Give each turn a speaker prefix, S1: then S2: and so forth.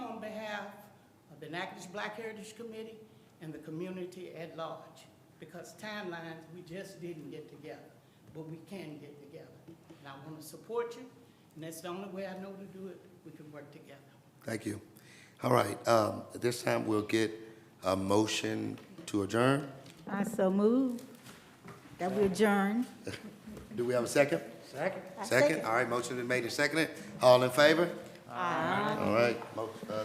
S1: Natchitoches Black Heritage Committee and the community at large. Because timelines, we just didn't get together, but we can get together. And I want to support you, and that's the only way I know to do it. We can work together.
S2: Thank you. All right, um, at this time, we'll get a motion to adjourn.
S3: I so move that we adjourn.
S2: Do we have a second? Second. Second, all right, motion is made and seconded. All in favor? Aye. All right, mo- uh,